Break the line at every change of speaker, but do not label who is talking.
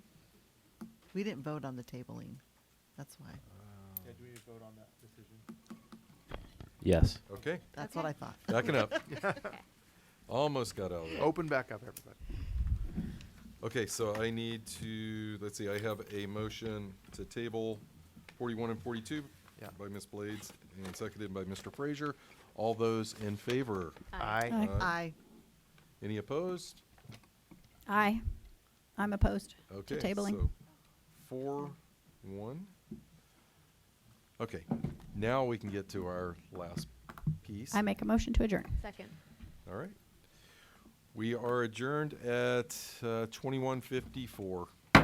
We didn't vote on the tabling. That's why.
Yeah, do we need to vote on that decision?
Yes.
Okay,
That's what I thought.
backing up. Almost got out of there.
Open back up, everybody.
Okay, so I need to, let's see, I have a motion to table forty-one and forty-two
Yeah.
by Ms. Blades and seconded by Mr. Frazier. All those in favor? Uh,
Aye.
Aye.
Any opposed?
Aye. I'm opposed
Okay,
to tabling.
so four, one. Okay, now we can get to our last piece.
I make a motion to adjourn.
Second.
All right. We are adjourned at uh, twenty-one fifty-four.